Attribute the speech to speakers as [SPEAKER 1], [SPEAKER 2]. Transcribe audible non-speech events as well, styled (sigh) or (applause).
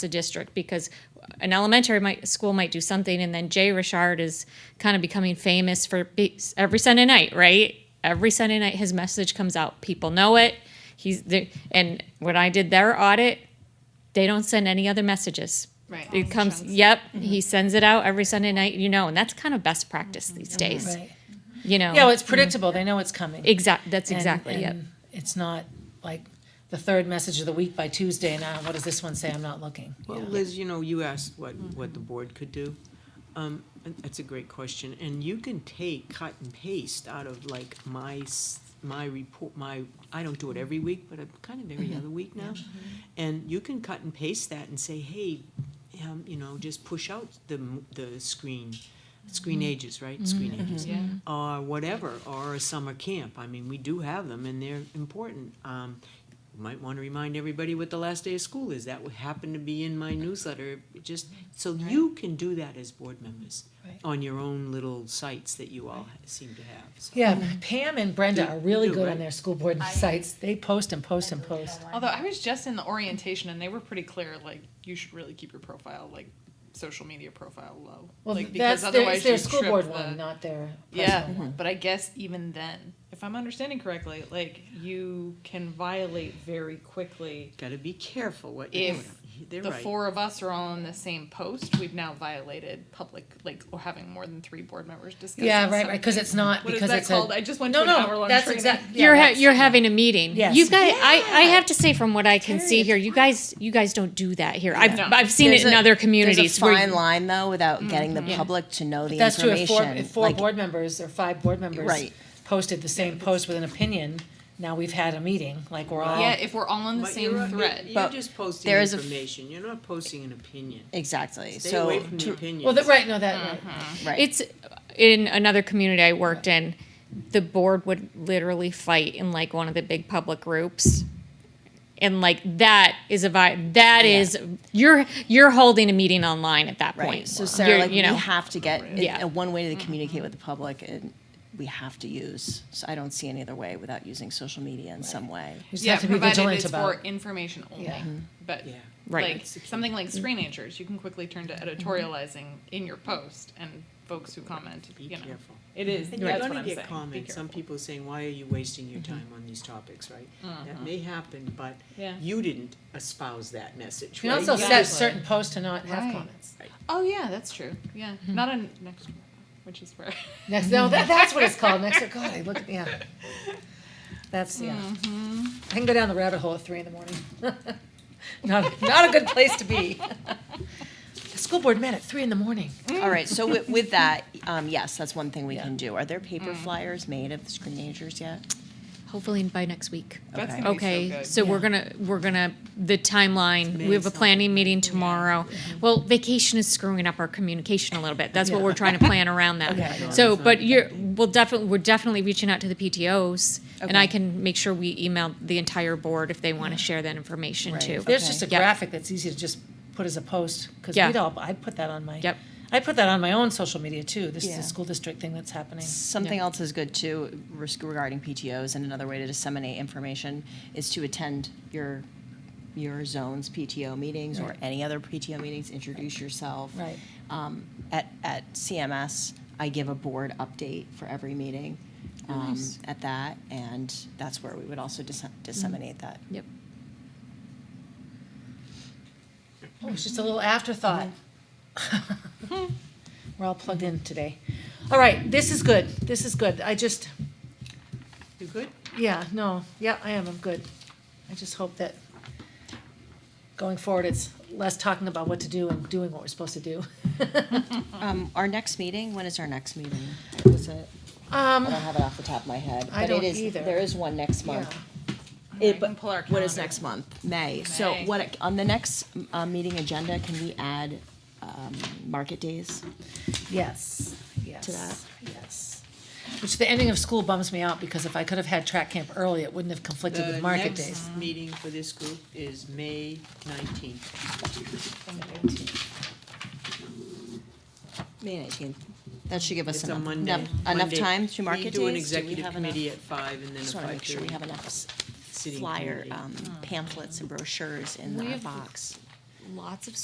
[SPEAKER 1] a district because an elementary might, school might do something, and then Jay Richard is kind of becoming famous for be- every Sunday night, right? Every Sunday night, his message comes out. People know it. He's the, and when I did their audit, they don't send any other messages.
[SPEAKER 2] Right.
[SPEAKER 1] It comes. Yep,
[SPEAKER 3] Mm-hmm.
[SPEAKER 1] he sends it out every Sunday night. You know, and that's kind of best practice these days.
[SPEAKER 3] Mm-hmm. Right.
[SPEAKER 1] You know.
[SPEAKER 3] Yeah, well, it's predictable. They know it's coming.
[SPEAKER 1] Exact. That's
[SPEAKER 3] And-
[SPEAKER 1] exactly it.
[SPEAKER 3] and It's not like the third message of the week by Tuesday, and ah, what does this one say? I'm not looking.
[SPEAKER 4] Well,
[SPEAKER 3] Yeah.
[SPEAKER 4] Liz, you know, you asked what, what the board could do. Um, and that's a great question, and you can take, cut and paste out of like my, s- my report, my, I don't do it every week, but I'm kind of every other week now. And you can cut and paste that and say, hey, um, you know, just push out the, m- the screen, screen ages, right? Screen ages.
[SPEAKER 3] Mm-hmm.
[SPEAKER 4] Or whatever, or a summer camp. I mean, we do have them and they're important. Um, you might want to remind everybody what the last day of school is. That would happen to be in my newsletter, It just, so you can do that as board members
[SPEAKER 3] Right.
[SPEAKER 4] on your own little sites that you all seem to have. So
[SPEAKER 3] Yeah, Pam and Brenda are really
[SPEAKER 4] do,
[SPEAKER 3] good on
[SPEAKER 4] right?
[SPEAKER 3] their school board sites. They post and post and post.
[SPEAKER 2] Although I was just in the orientation and they were pretty clear, like you should really keep your profile, like social media profile low.
[SPEAKER 3] Well,
[SPEAKER 2] like,
[SPEAKER 3] that's their, it's their
[SPEAKER 2] you
[SPEAKER 3] school
[SPEAKER 2] trip
[SPEAKER 3] board
[SPEAKER 2] the-
[SPEAKER 3] one, not their
[SPEAKER 2] Yeah,
[SPEAKER 3] personal one.
[SPEAKER 2] but I guess even then, if I'm understanding correctly, like you can violate very quickly.
[SPEAKER 4] gotta be careful what you're doing.
[SPEAKER 2] If
[SPEAKER 4] They're
[SPEAKER 2] the
[SPEAKER 4] right.
[SPEAKER 2] four of us are all on the same post, we've now violated public, like or having more than three board members discussing.
[SPEAKER 3] Yeah, right,
[SPEAKER 2] something.
[SPEAKER 3] right, because it's not,
[SPEAKER 2] What is
[SPEAKER 3] because
[SPEAKER 2] that
[SPEAKER 3] it's a.
[SPEAKER 2] called? I just went to an hour-long training.
[SPEAKER 3] exact- yeah,
[SPEAKER 1] you're ha-
[SPEAKER 3] that's-
[SPEAKER 1] you're having a meeting.
[SPEAKER 3] Yes.
[SPEAKER 1] You guys, I, I have to say from what I can see
[SPEAKER 3] Period.
[SPEAKER 1] here, you guys you guys don't do that here. I've
[SPEAKER 2] No.
[SPEAKER 1] I've seen
[SPEAKER 5] There's
[SPEAKER 1] it in
[SPEAKER 5] a-
[SPEAKER 1] other communities.
[SPEAKER 5] There's a
[SPEAKER 1] where
[SPEAKER 5] fine line though, without getting the public to know the
[SPEAKER 3] That's true, if
[SPEAKER 5] information.
[SPEAKER 3] four, if four
[SPEAKER 5] Like,
[SPEAKER 3] board members or five board members
[SPEAKER 5] Right.
[SPEAKER 3] posted the same post with an opinion, now we've had a meeting, like we're all.
[SPEAKER 2] Yeah, if we're all on the
[SPEAKER 4] But
[SPEAKER 2] same
[SPEAKER 4] you're-
[SPEAKER 2] thread.
[SPEAKER 4] You're
[SPEAKER 5] But
[SPEAKER 4] just posting
[SPEAKER 5] there is a f-
[SPEAKER 4] information, you're not posting an opinion.
[SPEAKER 5] Exactly.
[SPEAKER 4] Stay
[SPEAKER 5] so
[SPEAKER 4] away from the
[SPEAKER 5] to-
[SPEAKER 4] opinions.
[SPEAKER 3] Well, that, right, no, that,
[SPEAKER 5] right.
[SPEAKER 1] it's in another community I worked in, the board would literally fight in like one of the big public groups. And like that is a vi- That
[SPEAKER 5] Yeah.
[SPEAKER 1] is- you're you're holding a meeting online at that
[SPEAKER 5] right.
[SPEAKER 1] point.
[SPEAKER 5] So
[SPEAKER 1] You're-
[SPEAKER 5] Sarah, like
[SPEAKER 1] you know,
[SPEAKER 5] we have to get it-
[SPEAKER 1] Yeah.
[SPEAKER 5] a one way to communicate with the public, and we have to use. So I don't see any other way without using social media in some way.
[SPEAKER 3] you just
[SPEAKER 2] yeah,
[SPEAKER 3] have to be
[SPEAKER 2] provided
[SPEAKER 3] vigilant
[SPEAKER 2] it's
[SPEAKER 3] about.
[SPEAKER 2] for information only.
[SPEAKER 3] Yeah.
[SPEAKER 2] But
[SPEAKER 4] Mm-hmm. Yeah.
[SPEAKER 1] Right.
[SPEAKER 2] like something like screen anchors, you can quickly turn
[SPEAKER 4] Mm-hmm.
[SPEAKER 2] to editorializing in your post, and folks who comment,
[SPEAKER 4] Be
[SPEAKER 2] you know,
[SPEAKER 4] careful.
[SPEAKER 2] it is.
[SPEAKER 4] And you're
[SPEAKER 2] that's what
[SPEAKER 4] gonna
[SPEAKER 2] I'm saying.
[SPEAKER 4] get
[SPEAKER 2] Be
[SPEAKER 4] comments, some
[SPEAKER 2] careful.
[SPEAKER 4] people saying, why are you wasting your time on these topics, right? That may happen, but
[SPEAKER 2] Yeah.
[SPEAKER 4] you didn't espouse that message,
[SPEAKER 3] You
[SPEAKER 4] right?
[SPEAKER 3] can also
[SPEAKER 4] You
[SPEAKER 3] set
[SPEAKER 4] just-
[SPEAKER 3] certain posts to not have
[SPEAKER 2] Right.
[SPEAKER 3] comments.
[SPEAKER 2] Oh yeah, that's true. Yeah,
[SPEAKER 4] Mm-hmm.
[SPEAKER 2] not on next, which is where.
[SPEAKER 3] Next, no, that, that's what it's called. Next, God, I look at yeah. That's yeah. I can go down the rabbit hole at three in the morning. (laughs) not not a good place to be. the school board met at three in the morning.
[SPEAKER 5] All right. So with, with that, um, yes, that's one thing we can do. Are there paper flyers made of the screenagers yet?
[SPEAKER 1] hopefully by next week.
[SPEAKER 2] (laughs) That's
[SPEAKER 5] Okay.
[SPEAKER 2] gonna
[SPEAKER 1] Okay,
[SPEAKER 2] be so good.
[SPEAKER 1] so we're gonna, we're gonna, the timeline, we have a planning meeting tomorrow.
[SPEAKER 5] Mm-hmm.
[SPEAKER 1] Well, vacation is screwing up our communication a little bit, that's what we're trying to plan around
[SPEAKER 5] (laughs)
[SPEAKER 1] that. So, but you're, we'll definitely, we're definitely reaching out to the PTOs, and I
[SPEAKER 5] Okay.
[SPEAKER 1] can make sure we email the entire board if they wanna share that information
[SPEAKER 5] Right.
[SPEAKER 1] too.
[SPEAKER 3] There's just a
[SPEAKER 1] Yeah.
[SPEAKER 3] graphic that's easy to just put as a post because
[SPEAKER 1] Yeah.
[SPEAKER 3] we'd all I put that on my
[SPEAKER 1] Yep.
[SPEAKER 3] I put that on my own social media too. This is
[SPEAKER 5] Yeah.
[SPEAKER 3] a school district thing that's happening.
[SPEAKER 5] Something else is good too res- regarding PTOs, and another way to disseminate information is to attend your your zone's PTO meetings or
[SPEAKER 3] Right.
[SPEAKER 5] any other PTO meetings. Introduce yourself.
[SPEAKER 3] Right.
[SPEAKER 5] Um, at at CMS, I give a board update for every meeting. Um, At that, and that's where we would also dis- disseminate that.
[SPEAKER 1] Yep.
[SPEAKER 3] Oh, it's just a little afterthought.
[SPEAKER 5] Mm-hmm.
[SPEAKER 3] (laughs) We're all plugged in today. All right, this is good. This is good. I just,
[SPEAKER 4] You good?
[SPEAKER 3] yeah, no, yeah, I am. I'm good. I just hope that going forward, it's less talking about what to do and doing what we're supposed to do. (laughs) Mm.
[SPEAKER 5] Um, our next meeting. When is our next meeting? Was it? I
[SPEAKER 3] Um,
[SPEAKER 5] don't have it off the top of my head.
[SPEAKER 3] I
[SPEAKER 5] but
[SPEAKER 3] don't
[SPEAKER 5] it is,
[SPEAKER 3] either.
[SPEAKER 5] There is one next
[SPEAKER 3] yeah.
[SPEAKER 5] month.
[SPEAKER 2] I
[SPEAKER 5] It,
[SPEAKER 2] can
[SPEAKER 5] but
[SPEAKER 2] pull our
[SPEAKER 5] what is
[SPEAKER 2] calendar.
[SPEAKER 5] next month? May. So
[SPEAKER 2] May.
[SPEAKER 5] what, on the next, uh, meeting agenda, can we add, um, market days?
[SPEAKER 3] Yes,
[SPEAKER 5] To that.
[SPEAKER 3] yes, yes. Which the ending of school bums me out because if I could have had track camp early, it wouldn't have conflicted
[SPEAKER 4] The
[SPEAKER 3] with market days.
[SPEAKER 4] next Mm-hmm. meeting for this group is May nineteenth.
[SPEAKER 5] May nineteenth. That should give us
[SPEAKER 4] It's a
[SPEAKER 5] enough,
[SPEAKER 4] Monday.
[SPEAKER 5] enough, enough
[SPEAKER 4] Monday.
[SPEAKER 5] time to market
[SPEAKER 4] We
[SPEAKER 5] days?
[SPEAKER 4] do an
[SPEAKER 5] Do we
[SPEAKER 4] executive
[SPEAKER 5] have
[SPEAKER 4] committee
[SPEAKER 5] enough?
[SPEAKER 4] at five and then
[SPEAKER 5] Just
[SPEAKER 4] a
[SPEAKER 5] wanna
[SPEAKER 4] five
[SPEAKER 5] make sure we
[SPEAKER 4] thirty.
[SPEAKER 5] have enough s-
[SPEAKER 4] sitting
[SPEAKER 5] flyer,
[SPEAKER 2] Hmm.
[SPEAKER 4] committee.
[SPEAKER 5] um, pamphlets and brochures in
[SPEAKER 1] We
[SPEAKER 5] our
[SPEAKER 1] have-
[SPEAKER 5] box.
[SPEAKER 2] lots of